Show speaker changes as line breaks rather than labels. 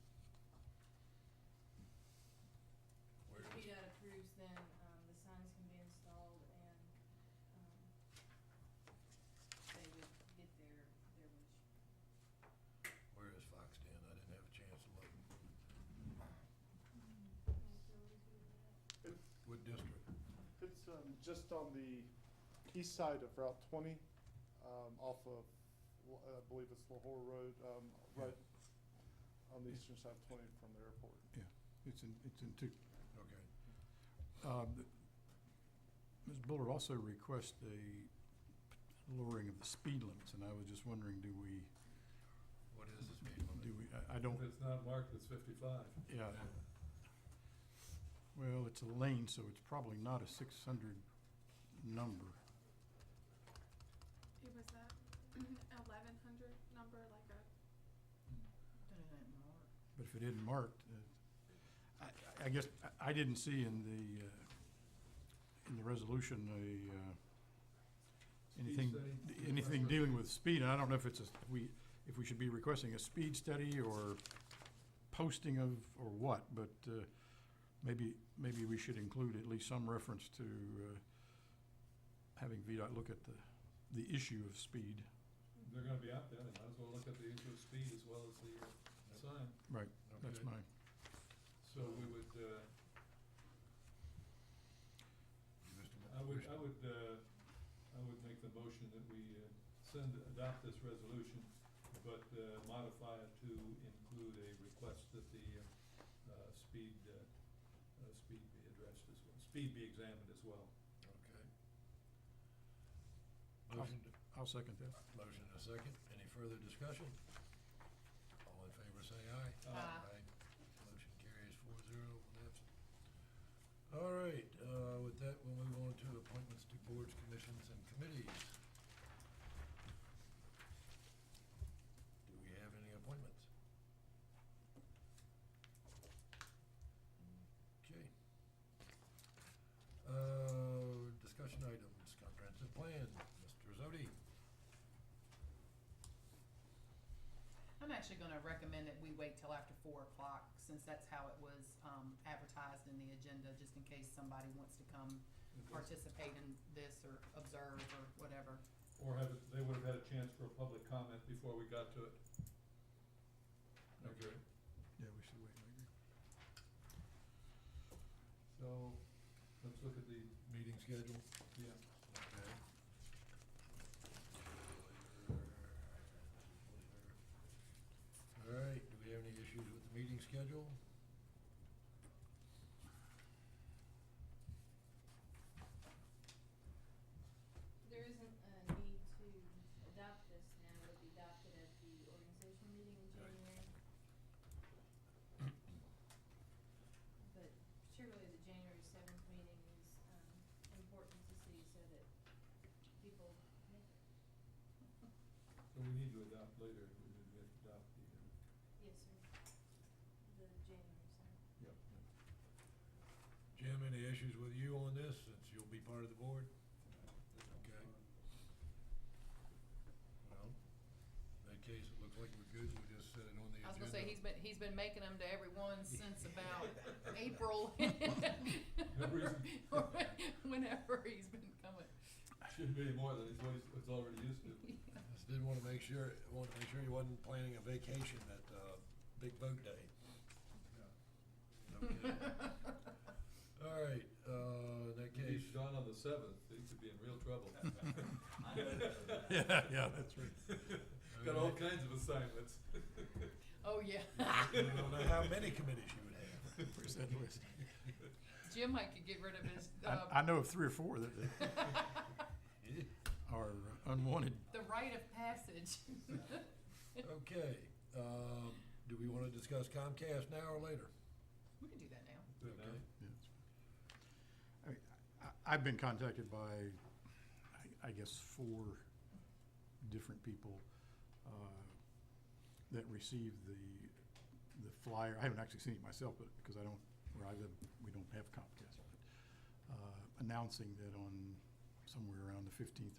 um,
um, just on the east side of Route 20, um, off of, L- I believe it's Lahore Road, um, right on the eastern side of 20 from the airport.
Yeah, it's in, it's in two, okay. Um, the- Ms. Buller also requests a lowering of the speed limits, and I was just wondering, do we,
What is the speed limit?
do we, I I
If
don't,
it's not marked, it's fifty-five.
yeah. Well, it's a lane, so it's probably not a six hundred number.
It was that eleven hundred number, like a,
But if it isn't marked, uh, I, I guess, I- I didn't see in the, uh, in the resolution, a, uh, anything,
study.
anything dealing with speed. I don't know if it's, a we, if we should be requesting a speed study or posting of, or what, but uh, maybe, maybe we should include at least some reference to uh, having VDOT look at the, the issue of speed.
They're gonna be out there, they might as well look at the issue of speed as well as the uh, sign.
Right, that's
Okay.
my,
So we would, uh,
Mr.
I would,
Mr.
I would, uh, I would make the motion that we uh, send, adopt this resolution, but uh, modify it to include a request that the uh, uh, speed, uh, uh, speed be addressed as well, speed be examined as well.
Okay. Motion, to-
I'll second that.
motion and a second. Any further discussion? All in favor, say aye.
Aye.
Aye. Motion carries four zero, one absent. All right, uh, with that, we'll move on to appointments to boards, commissions, and committees. Do we have any appointments? Okay. Uh, discussion items, comprehensive plan, Mr. Zodi.
I'm actually gonna recommend that we wait till after four o'clock, since that's how it was, um, advertised in the agenda, just in case somebody wants to come participate in this or observe or whatever.
Or have, it- they would have had a chance for a public comment before we got to it. Okay.
Yeah, we should wait, I agree.
So, let's look at the,
Meeting schedule.
yeah,
Okay. All right, do we have any issues with the meeting schedule?
There isn't a need to adopt this now, it'll be adopted at the organization meeting in
Right.
January. But surely the January seventh meeting is, um, important to see so that people make it.
so we need to adopt later, we need to adopt the, uh,
Yes, sir. The January seventh.
uh, yeah.
Jim, any issues with you on this, since you'll be part of the board? Okay. Well, in that case, it looks like we're good, we just set it on the agenda.
I was gonna say, he's been, he's been making them to everyone since about April. Or Whenever he's been coming.
Shouldn't be any more than he's, what he's- what's already used to.
Just didn't want to make sure, wanted to make sure you wasn't planning a vacation at, uh, Big Boat Day. Okay. All right, uh, in that
If he's
case.
gone on the seventh, he could be in real trouble.
Yeah, yeah, that's right.
Got all kinds of assignments.
Oh, yeah.
I don't know how many committees you would have.
Where's that list?
Jim might could get rid of his, uh,
I, I know of three or four that that are unwanted.
the rite of passage.
Okay, um, do we want to discuss Comcast now or later?
We can do that now.
Good now.
Okay.
Yeah, that's fine. I mean, I- I've been contacted by, I- I guess, four different people uh, that received the, the flyer. I haven't actually seen it myself, but, because I don't, where I live, we don't have Comcast. but, uh, Announcing that on somewhere around the 15th or